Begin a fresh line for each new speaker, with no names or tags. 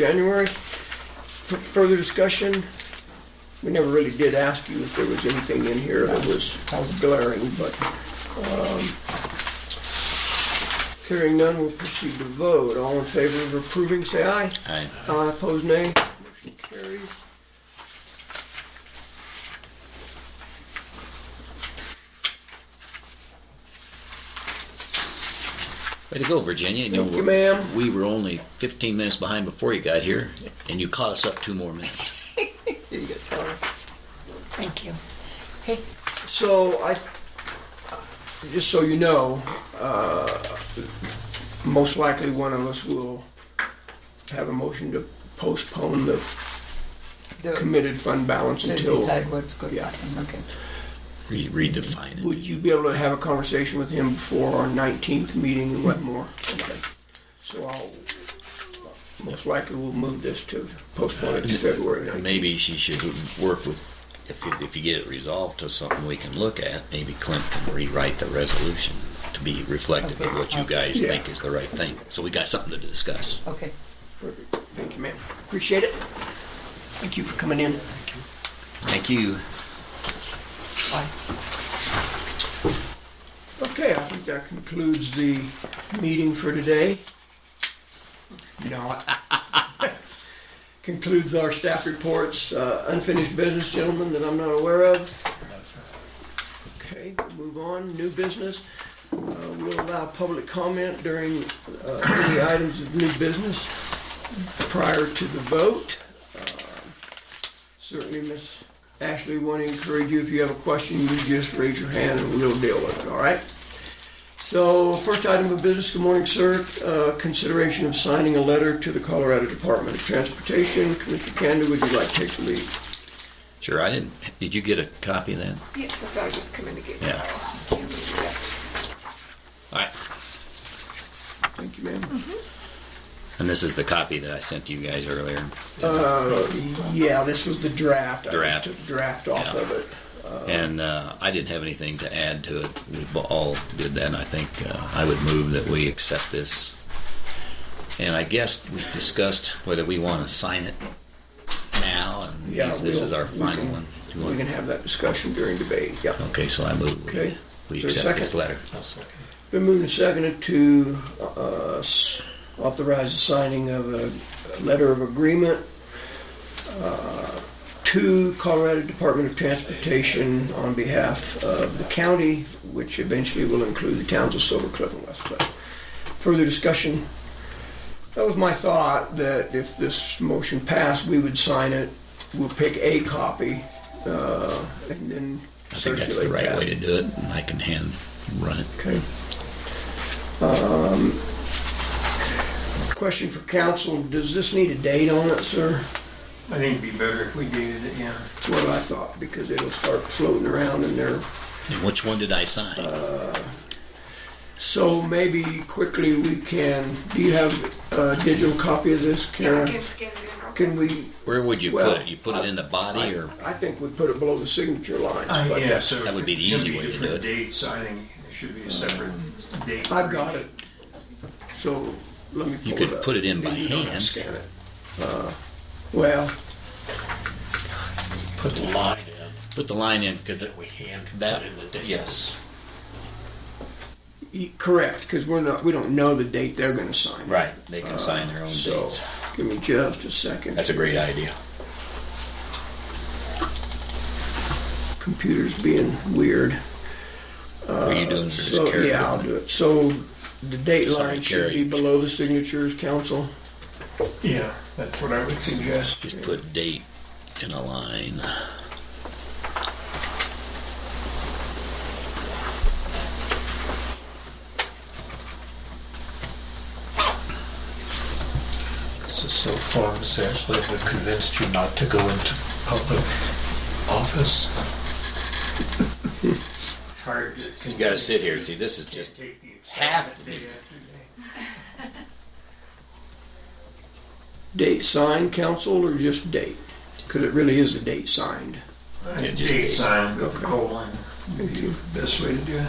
January. F- Further discussion? We never really did ask you if there was anything in here that was glaring, but um, hearing none, we'll proceed to vote. All in favor of approving, say aye.
Aye.
Aye, opposed, nay. Motion carries.
Way to go, Virginia. You
Thank
know,
you, ma'am.
We were only 15 minutes behind before you got here, and you caught us up two more minutes.
Here you go, Charlie.
Thank you. Hey,
So I, just so you know, uh, most likely one of us will have a motion to postpone the
to
committed fund balance
to
until.
decide what's good.
Yeah.
Okay.
Read, redefine it.
Would you be able to have a conversation with him before our 19th meeting in Wetmore? Okay. So I'll, most likely we'll move this to postpone it to February 19th.
Maybe she should work with. If you, if you get it resolved to something we can look at, maybe Clint can rewrite the resolution to be reflective of what you guys
Yeah.
think is the right thing. So we got something to discuss.
Okay.
Perfect. Thank you, ma'am. Appreciate it. Thank you for coming in.
Thank you.
Bye.
Okay, I think that concludes the meeting for today. No. Concludes our staff reports, Uh, unfinished business, gentlemen, that I'm not aware of. Okay, move on, new business. Uh, We'll allow public comment during uh, any items of new business prior to the vote. Uh, Certainly, Miss Ashley, want to encourage you, if you have a question, you just raise your hand and we'll deal with it, all right? So, first item of business, good morning, sir. Uh, Consideration of signing a letter to the Colorado Department of Transportation. Commissioner Canada, would you like to take the lead?
Sure, I didn't. Did you get a copy of that?
Yes, that's what I was just coming to get.
Yeah.
Yeah.
All right.
Thank you, ma'am.
And this is the copy that I sent to you guys earlier.
Uh, Yeah, this was the draft. I just
Draft.
took the draft off
Yeah.
of it.
And uh, I didn't have anything to add to it. We b- all did that, and I think uh, I would move that we accept this. And I guess we discussed whether we want to sign it now, and
Yeah,
if this
we'll-
is our
we
final
can-
one. Do you
We
want-
can have that discussion during debate, yeah.
Okay, so I move we-
Okay. Is
we
there a
accept this
second?
letter.
Been moved and seconded to uh, s- authorize the signing of a a letter of agreement uh, to Colorado Department of Transportation on behalf of the county, which eventually will include the towns of Silver Cliff and West Cliff. Further discussion? That was my thought, that if this motion passed, we would sign it, we'll pick a copy, uh, and then
I think that's the
circulate
right
that.
way to do it, and I can hand run it.
Okay. Um, Question for council, does this need a date on it, sir?
I think it'd be better if we dated it, yeah.
That's what I thought, because it'll start floating around in there.
And which one did I
Uh,
sign?
So maybe quickly we can, do you have a digital copy of this,
Yeah, I
Karen?
can scan it in real quick.
Can we,
Where would you
well,
put it? You put it in the body, or
I think we put it below the signature lines,
Uh,
but
yeah,
that's,
so
That would be the
it'd
easy way to do
different
it.
Dates, I think there should be a separate date.
I've
for
got
each.
it. So let me pull
You
it
could
up.
put it in by
You don't have to
hand.
Scan it. Uh, Well,
put the line in
put the line in because
that we hand
That-
put in the date.
yes.
y- correct, because we're not, we don't know the date they're gonna sign. it.
Right, they can sign their own
So,
dates.
give me just a second.
That's a great idea.
Computer's being weird.
Are you doing this
So,
character?
yeah, I'll do it. So, the date
Sorry,
line should
Carrie.
be below the signatures, council.
Yeah, that's what I would suggest.
Just put date in a line.
So, so far, Miss Ashley, we convinced you not to go into public office.
It's hard to.
You gotta sit here. See, this is just
Take the excitement
half the
day
meeting.
after day.
Date signed, council, or just date? Because it really is a date signed.
I think
just
Date
date.
signed with a
Okay.
colon would
Thank
be
you.
the best way to do it.